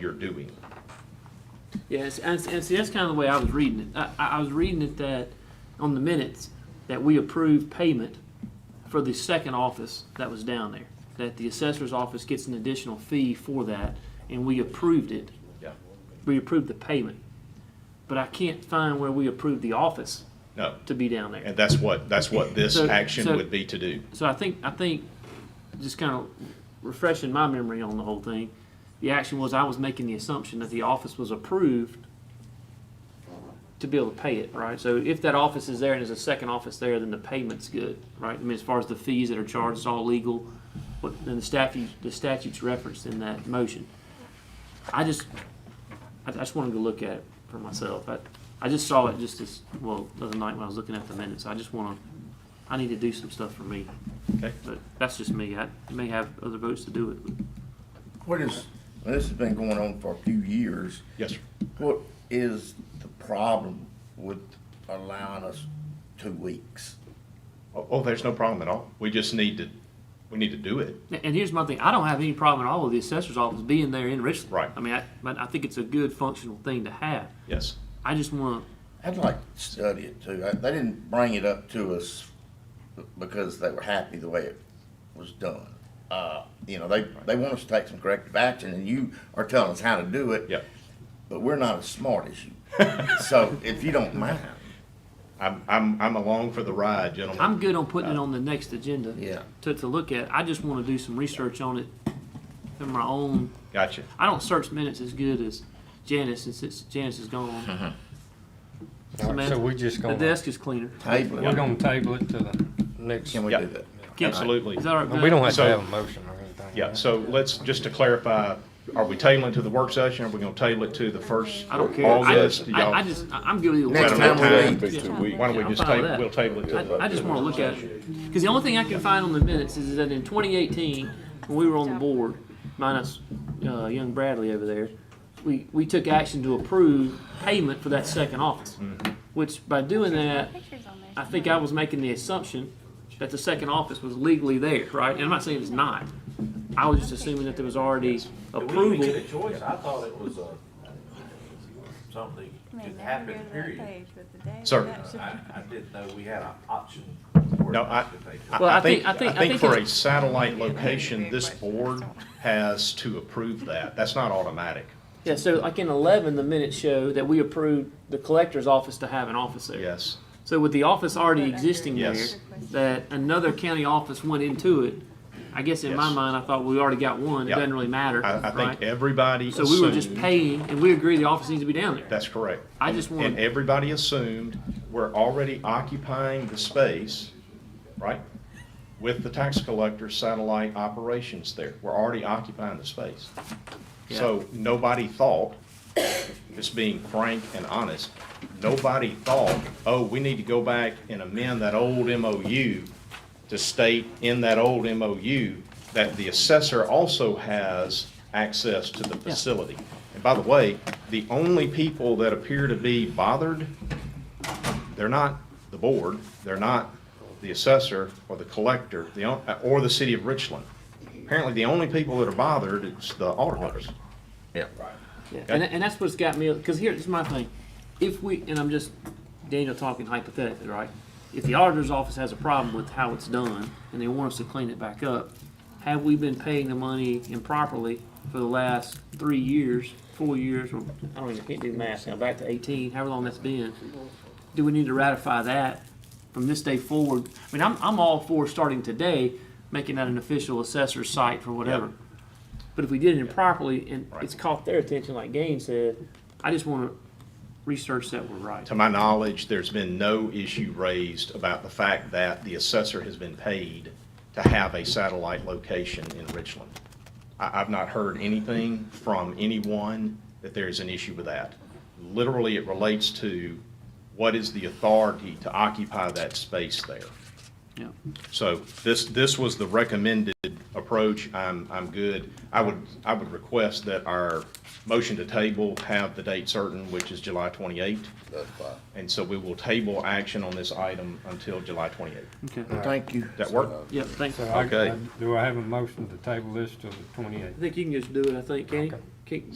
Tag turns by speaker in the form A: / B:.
A: you're doing.
B: Yes, and, and see, that's kind of the way I was reading it. I, I I was reading it that, on the minutes, that we approved payment for the second office that was down there. That the assessor's office gets an additional fee for that, and we approved it.
A: Yeah.
B: We approved the payment. But I can't find where we approved the office
A: No,
B: to be down there.
A: and that's what, that's what this
B: So-
A: action
B: so-
A: would be to do.
B: So I think, I think, just kind of refreshing my memory on the whole thing, the action was I was making the assumption that the office was approved to be able to pay it, right? So if that office is there and there's a second office there, then the payment's good, right? I mean, as far as the fees that are charged, it's all legal, but then the statute, the statute's referenced in that motion. I just, I I just wanted to look at it for myself. I, I just saw it just this, well, the other night when I was looking at the minutes. I just wanna, I need to do some stuff for me.
A: Okay.
B: But that's just me. I may have other votes to do it. but-
C: What is, this has been going on for a few years.
A: Yes, sir.
C: What is the problem with allowing us two weeks?
A: Oh, oh, there's no problem at all. We just need to, we need to do it.
B: And- And here's my thing, I don't have any problem at all with the assessor's office being there in Richland.
A: Right.
B: I mean, I, but I think it's a good functional thing to have.
A: Yes.
B: I just wanna,
C: I'd like to study it too. I- They didn't bring it up to us because they were happy the way it was done. Uh, you know, they, they want us to take some corrective action and you are telling us how to do it.
A: Yeah.
C: But we're not as smart as you. So if you don't mind,
A: I'm, I'm, I'm along for the ride, gentlemen.
B: I'm good on putting it on the next agenda.
C: Yeah.
B: To, to look at. I just wanna do some research on it in my own
A: Gotcha.
B: I don't search minutes as good as Janice since it's, Janice is gone.
D: So we're just
B: The
D: gonna,
B: desk is cleaner.
C: table
D: we're
C: it.
D: gonna table it to the next,
C: Can we
D: we
A: Yeah.
C: do that?
B: Can-
A: Absolutely.
B: Is that all right? Glenn?
D: don't have to
A: So-
D: have a motion or anything.
A: Yeah, so let's, just to clarify, are we tabling to the work session? Are we gonna table it to the first
B: I don't care. I
A: August?
B: just,
A: Do
B: I,
A: y'all-
B: I just, I- I'm good with either way.
C: Next time
A: Yeah.
C: we meet,
A: Why don't we
B: I'm
A: just
B: fine with
A: table,
B: that.
A: we'll table it to,
B: I, I just wanna look at it. Cause the only thing I can find on the minutes is that in twenty eighteen, when we were on the board, minus, uh, young Bradley over there, we, we took action to approve payment for that second office. Which by doing that,
E: Pictures on there.
B: I think I was making the assumption that the second office was legally there, right? And I'm not saying it's not. I was just assuming that there was already
F: We didn't
B: approval.
F: get a choice, I thought it was, uh, something
E: I mean, now
F: that
E: you're
F: happened,
E: on that
F: period.
E: page with the date.
A: Sir.
E: That should-
F: I, I didn't know we had an option. for
A: No,
F: us
A: I,
F: to take it.
B: Well,
A: I-
B: I
A: I think,
B: think- I
A: I
B: think- I
A: think
B: think
A: for a
B: it's-
A: satellite location, this board has to approve that. That's not automatic.
B: Yeah, so like in eleven, the minutes show that we approved the collector's office to have an office there.
A: Yes,
B: So with the office already existing there,
A: Yes.
B: that another county office went into it, I guess in my
A: Yes.
B: mind, I thought we already got one, it
A: Yeah.
B: doesn't really matter,
A: I, I think
B: right?
A: everybody
B: So we were just
A: assumed-
B: paying, and we agree the office needs to be down there.
A: That's correct.
B: I just
A: And
B: want,
A: everybody assumed we're already occupying the space, right? With the tax collector satellite operations there. We're already occupying the space. So nobody thought, just being frank and honest, nobody thought, oh, we need to go back and amend that old MOU to state in that old MOU that the assessor also has access to the facility. And by the way, the only people that appear to be bothered, they're not the board, they're not the assessor or the collector, the, on- or the city of Richland. Apparently, the only people that are bothered is the auditors.
C: Yeah.
B: yeah, and, and that's what's got me, because here's my thing, if we, and I'm just, Daniel talking hypothetically, right? If the auditor's office has a problem with how it's done, and they want us to clean it back up, have we been paying the money improperly for the last three years, four years, or, I don't even, can't do math now, back to eighteen, however long that's been? Do we need to ratify that from this day forward? I mean, I'm, I'm all for starting today, making that an official assessor's site for whatever. But if we did it improperly and it's caught their attention, like Gaines said, I just wanna research that we're right.
A: To my knowledge, there's been no issue raised about the fact that the assessor has been paid to have a satellite location in Richland. I, I've not heard anything from anyone that there is an issue with that. Literally, it relates to what is the authority to occupy that space there.
B: Yeah.
A: So this, this was the recommended approach. I'm, I'm good. I would, I would request that our motion to table have the date certain, which is July 28th.
C: That's fine.
A: And so we will table action on this item until July 28th.
B: Okay.
C: Thank you.
A: That work?
B: Yep, thanks.
D: So
B: I
D: I,
A: Okay.
D: I- do I have a motion to table this till the twenty-eighth?
B: think you can just do it, I think, can you? Can-